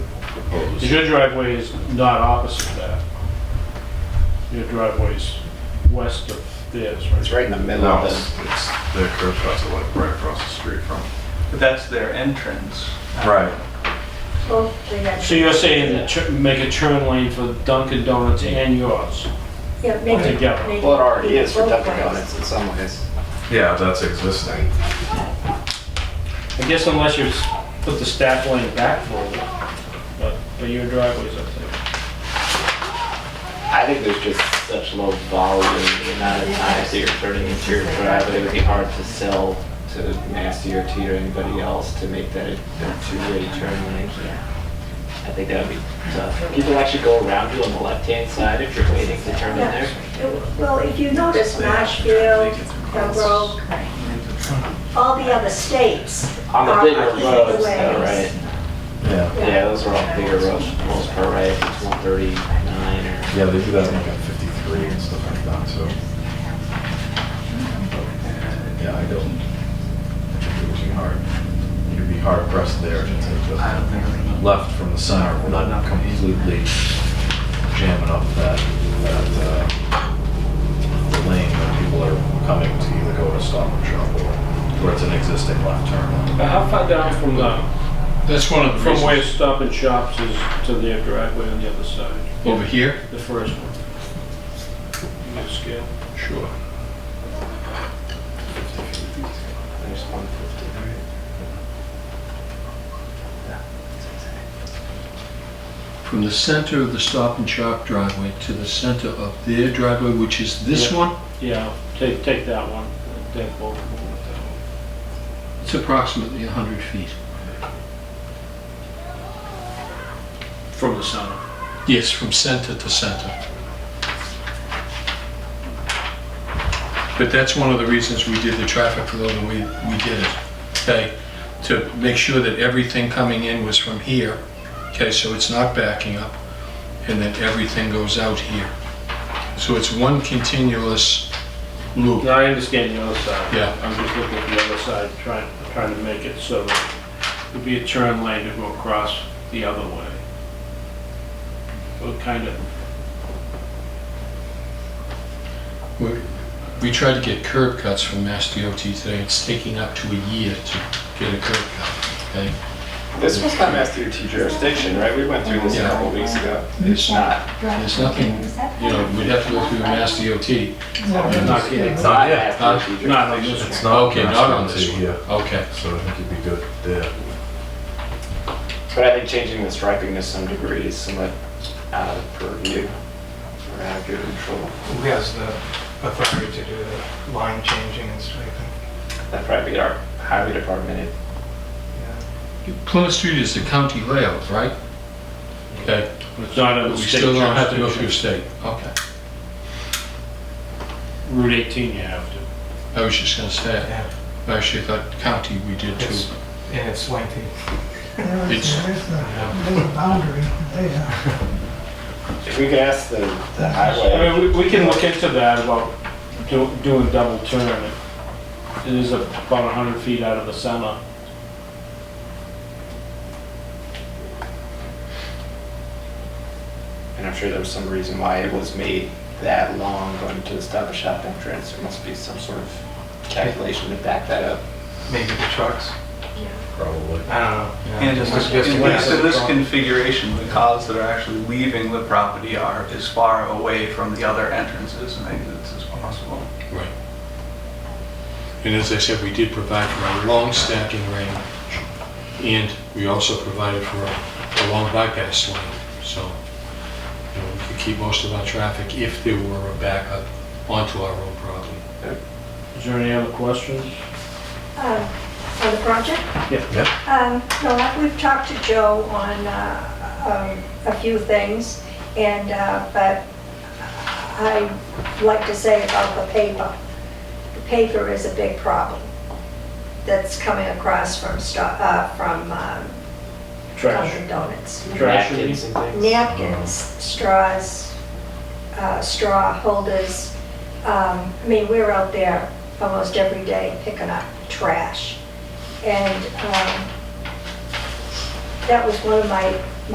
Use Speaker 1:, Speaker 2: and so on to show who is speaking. Speaker 1: goes.
Speaker 2: 'Cause your driveway is not opposite that. Your driveway's west of theirs, right?
Speaker 3: It's right in the middle
Speaker 1: No,
Speaker 3: of
Speaker 1: it's,
Speaker 3: this.
Speaker 1: it's their curb cuts are like right across the street from.
Speaker 4: But that's their entrance.
Speaker 1: Right.
Speaker 5: Well, they have-
Speaker 2: So you're saying that tur- make a turn lane for Dunkin' Donuts and yours?
Speaker 5: Yeah, make it.
Speaker 2: Together.
Speaker 5: make
Speaker 3: Well, it already E is for
Speaker 5: both
Speaker 3: Dunkin'
Speaker 5: ways.
Speaker 3: Donuts in some ways.
Speaker 1: Yeah, that's existing.
Speaker 2: I guess unless you s- put the staff lane back for it, but, but your driveway's up there.
Speaker 3: I think there's just such low volume, the amount of times that you're turning into your driveway, it would be hard to sell to Mass DOT or anybody else to make that a a two-way turn lane. I think that would be tough. People actually go around you on the left-hand side if you're waiting to turn in
Speaker 5: Yeah.
Speaker 3: there.
Speaker 5: Well, if you notice Marshfield, Pembroke, all the other states.
Speaker 3: On the
Speaker 5: are
Speaker 3: bigger
Speaker 5: opposite
Speaker 3: roads, though,
Speaker 5: ways.
Speaker 3: right?
Speaker 6: Yeah,
Speaker 3: Yeah, those are all bigger roads for the most part, right? It's 139 or...
Speaker 6: yeah, they do that in like
Speaker 1: Got 53 and stuff like that, so.
Speaker 6: Yeah, I don't. I think it would be hard. You'd be hard pressed there to take the left from the center without completely jamming up that, that, uh, lane that people are coming to either go to stop and shop or, or it's an existing left turn.
Speaker 2: But how far down from the,
Speaker 7: That's one of the
Speaker 2: from where
Speaker 7: reasons.
Speaker 2: Stop and Shops is to their driveway on the other side?
Speaker 7: Over here?
Speaker 2: The first one. You get a scale?
Speaker 7: Sure.
Speaker 3: There's 150, right?
Speaker 7: From the center of the Stop and Shop driveway to the center of their driveway, which is this
Speaker 2: Yeah.
Speaker 7: one,
Speaker 2: Yeah, take, take that one, take both of them with that one.
Speaker 7: it's approximately 100 feet.
Speaker 2: From the center.
Speaker 7: Yes, from center to center. But that's one of the reasons we did the traffic flow the way we did it, okay? To make sure that everything coming in was from here, okay, so it's not backing up, and that everything goes out here. So it's one continuous loop.
Speaker 2: No, I understand the other side.
Speaker 7: Yeah.
Speaker 2: I'm just looking at the other side, trying, trying to make it so that it'd be a turn lane to go across the other way. So it kind of,
Speaker 7: We- We tried to get curb cuts from Mass DOT today, it's taking up to a year to get a curb cut, okay?
Speaker 3: This was not Mass DOT jurisdiction, right? We went through this a
Speaker 7: Yeah.
Speaker 3: couple weeks ago.
Speaker 7: It's
Speaker 3: Not.
Speaker 7: There's nothing, you know, we'd have to go through Mass DOT.
Speaker 2: not getting,
Speaker 3: It's
Speaker 6: Not
Speaker 3: not
Speaker 6: yet.
Speaker 3: Mass DOT
Speaker 2: not on
Speaker 3: jurisdiction.
Speaker 2: this one.
Speaker 6: It's not.
Speaker 7: Okay, not on this one.
Speaker 6: Yeah,
Speaker 7: Okay.
Speaker 6: so I think you'd be good there.
Speaker 3: But I think changing the striping to some degree is somewhat out of purview or out of your control.
Speaker 8: Who has the authority to do the line changing and striping?
Speaker 3: That'd probably be our highway department.
Speaker 8: Yeah.
Speaker 7: Plymouth Street is the county layout, right? Okay,
Speaker 2: it's not on
Speaker 7: but
Speaker 2: the
Speaker 7: we
Speaker 2: state
Speaker 7: still don't have to go through
Speaker 2: jurisdiction.
Speaker 7: state. Okay.
Speaker 2: Route 18 you have to.
Speaker 7: I was just gonna say,
Speaker 8: Yeah.
Speaker 7: I actually thought county we did too.
Speaker 8: It's- And it's lengthy.
Speaker 9: There is,
Speaker 7: It's-
Speaker 9: there is a, there's a boundary there.
Speaker 3: If we could ask the the highway,
Speaker 2: I mean, we, we can look into that about do- doing double turn. It is about 100 feet out of the center.
Speaker 3: and I'm sure there's some reason why it was made that long going to the Stop and Shop entrance. There must be some sort of calculation to back that up.
Speaker 8: Maybe the trucks.
Speaker 6: Probably.
Speaker 8: I don't know. Yeah.
Speaker 4: And just,
Speaker 8: Just-
Speaker 4: in
Speaker 2: west of
Speaker 4: this- in
Speaker 2: the
Speaker 4: this
Speaker 2: property.
Speaker 4: configuration, the cars that are actually leaving the property are as far away from the other entrances and exits as possible.
Speaker 7: Right. And as I said, we did provide for a long stacking range, and we also provided for a- a long bypass lane, so, you know, we could keep most of our traffic if there were a backup onto our own property.
Speaker 2: Is there any other questions?
Speaker 5: Um, On the project?
Speaker 2: Yeah.
Speaker 6: Yeah.
Speaker 5: Um, No, I- we've talked to Joe on uh, um, a few things, and, uh, but I'd like to say about the paper. The paper is a big problem that's coming across from, Sto- uh, from um, Dunkin'
Speaker 2: Trash,
Speaker 5: Donuts.
Speaker 2: trash. you mean?
Speaker 3: Napkins and things.
Speaker 5: napkins, straws, uh, straw holders. Um, I mean, we're out there almost every day picking up trash. And um, that was one of my